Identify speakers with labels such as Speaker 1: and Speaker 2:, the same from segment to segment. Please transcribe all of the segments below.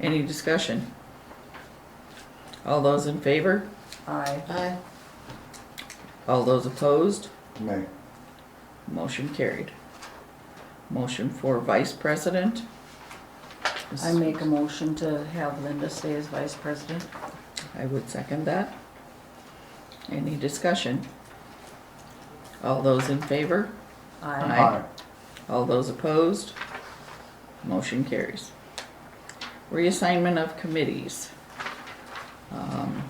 Speaker 1: Any discussion? All those in favor?
Speaker 2: Aye.
Speaker 3: Aye.
Speaker 1: All those opposed?
Speaker 4: Nay.
Speaker 1: Motion carried. Motion for vice president?
Speaker 2: I make a motion to have Linda stay as vice president.
Speaker 1: I would second that. Any discussion? All those in favor?
Speaker 2: Aye.
Speaker 1: Aye. All those opposed? Motion carries. Reassignment of committees. Um,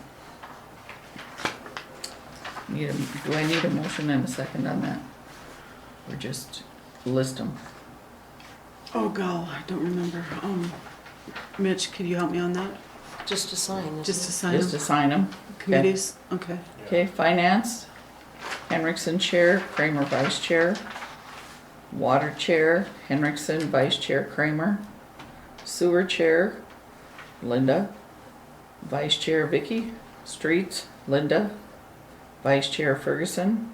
Speaker 1: Need a, do I need a motion and a second on that? Or just list them?
Speaker 5: Oh, God, I don't remember. Um, Mitch, could you help me on that?
Speaker 3: Just a sign, isn't
Speaker 5: Just
Speaker 3: it?
Speaker 5: to sign
Speaker 1: Just
Speaker 5: up
Speaker 1: assign them?
Speaker 5: committees? Okay.
Speaker 1: Okay, finance, Henriksen Chair, Kramer Vice Chair. Water Chair, Henriksen Vice Chair Kramer. Sewer Chair, Linda. Vice Chair Vicky. Streets, Linda. Vice Chair Ferguson.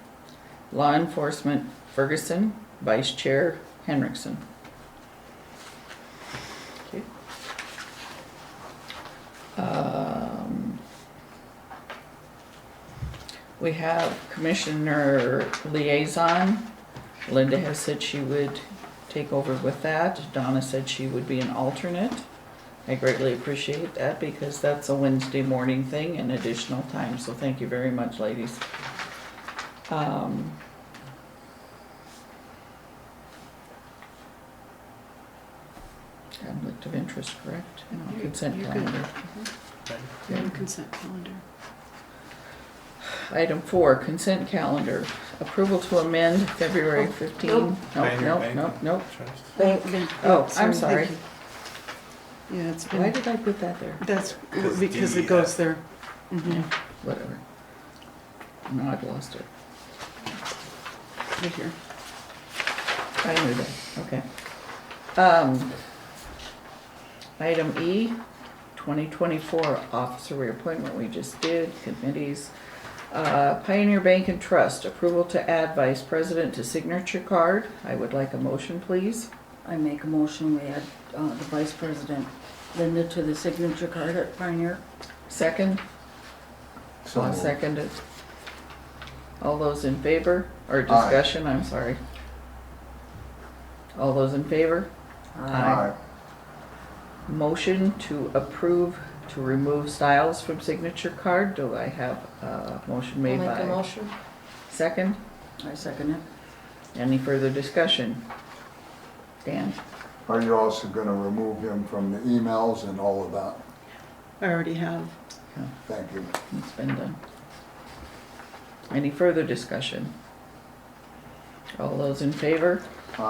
Speaker 1: Law Enforcement Ferguson, Vice Chair Henriksen. Okay. Um, we have Commissioner Liaison. Linda has said she would take over with that. Donna said she would be an alternate. I greatly appreciate that because that's a Wednesday morning thing and additional time, so thank you very much, ladies. Um, Conflict of interest, correct? And on
Speaker 5: You're-
Speaker 1: consent
Speaker 5: you're good.
Speaker 1: calendar. Okay.
Speaker 5: And consent calendar.
Speaker 1: Item four, consent calendar. Approval to amend February 15.
Speaker 3: nope.
Speaker 1: Nope,
Speaker 6: Mayor,
Speaker 1: nope,
Speaker 6: Mayor.
Speaker 1: nope, nope.
Speaker 3: Bank.
Speaker 5: Yeah,
Speaker 1: Oh,
Speaker 5: yeah,
Speaker 1: I'm
Speaker 5: thank
Speaker 1: sorry.
Speaker 5: you. Yeah, it's
Speaker 1: Why
Speaker 5: been,
Speaker 1: did I put that there?
Speaker 5: that's
Speaker 6: Because
Speaker 5: because
Speaker 6: the, uh,
Speaker 5: it goes there.
Speaker 1: Yeah,
Speaker 5: Mhm,
Speaker 1: Whatever. No, I've lost it.
Speaker 5: Right here.
Speaker 1: I knew that, okay. Um, item E, twenty twenty-four officer reappointment we just did, committees. Uh, Pioneer Bank and Trust, approval to add vice president to signature card. I would like a motion, please.
Speaker 2: I make a motion, we add uh, the vice president Linda to the signature card at Pioneer.
Speaker 1: Second?
Speaker 4: So
Speaker 1: I'll
Speaker 4: moved.
Speaker 1: second it. All those in favor, or discussion, I'm sorry. All those in favor?
Speaker 4: Aye.
Speaker 1: Motion to approve to remove Styles from signature card, do I have a motion
Speaker 3: I'll
Speaker 1: made
Speaker 3: make a
Speaker 1: by?
Speaker 3: motion.
Speaker 1: Second,
Speaker 2: I second it.
Speaker 1: any further discussion? Dan?
Speaker 4: Are you also gonna remove him from the emails and all of that?
Speaker 5: I already have.
Speaker 4: Thank you.
Speaker 1: It's been done. Any further discussion? All those in favor?
Speaker 4: Aye.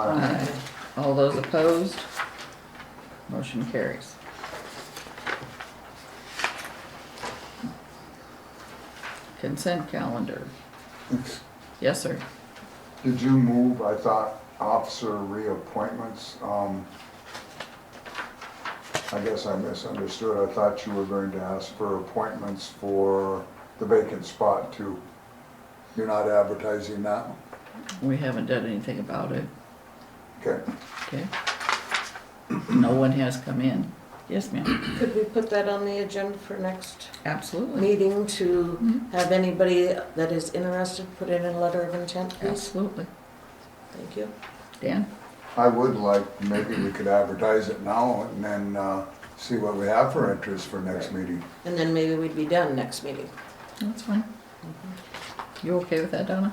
Speaker 1: Aye. All those opposed? Motion carries. Consent calendar.
Speaker 4: It's-
Speaker 1: Yes, sir.
Speaker 4: Did you move, I thought, officer reappointments? Um, I guess I misunderstood. I thought you were going to ask for appointments for the vacant spot too. You're not advertising that?
Speaker 1: We haven't done anything about it,
Speaker 4: Okay.
Speaker 1: okay? No one has come in. Yes, ma'am.
Speaker 3: Could we put that on the agenda for next
Speaker 1: Absolutely,
Speaker 3: meeting to
Speaker 1: Mhm.
Speaker 3: have anybody that is interested put in a letter of intent, please?
Speaker 1: absolutely.
Speaker 3: Thank you.
Speaker 1: Dan?
Speaker 4: I would like, maybe we could advertise it now and then, uh, see what we have for interest for next meeting.
Speaker 3: And then maybe we'd be done next meeting.
Speaker 1: That's fine. You okay with that, Donna?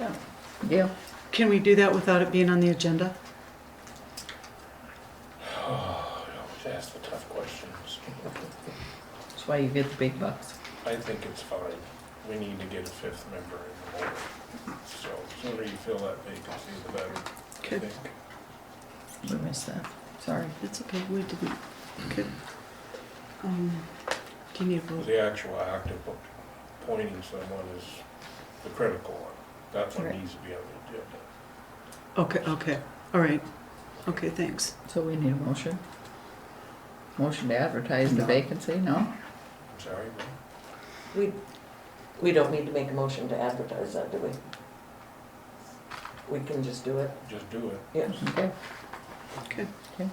Speaker 2: Yeah.
Speaker 1: Gail?
Speaker 5: Can we do that without it being on the agenda?
Speaker 6: Ask the tough questions.
Speaker 1: That's why you get the big bucks.
Speaker 6: I think it's fine. We need to get a fifth member in the board. So sooner you fill that vacancy, the better, I
Speaker 5: Okay.
Speaker 6: think.
Speaker 1: We missed that. Sorry.
Speaker 5: It's okay, we didn't. Okay. Um, Do you need a vote?
Speaker 6: The actual act of appointing someone is the critical one. That one
Speaker 1: Right.
Speaker 6: needs to be on the agenda.
Speaker 5: Okay, okay, all right. Okay, thanks.
Speaker 1: So we need a motion? Motion to advertise the
Speaker 4: No.
Speaker 1: vacancy, no?
Speaker 6: I'm sorry, but
Speaker 3: We, we don't need to make a motion to advertise that, do we? We can just do it,
Speaker 6: just do it.
Speaker 3: yeah.
Speaker 1: Okay.
Speaker 5: Okay.
Speaker 1: Okay.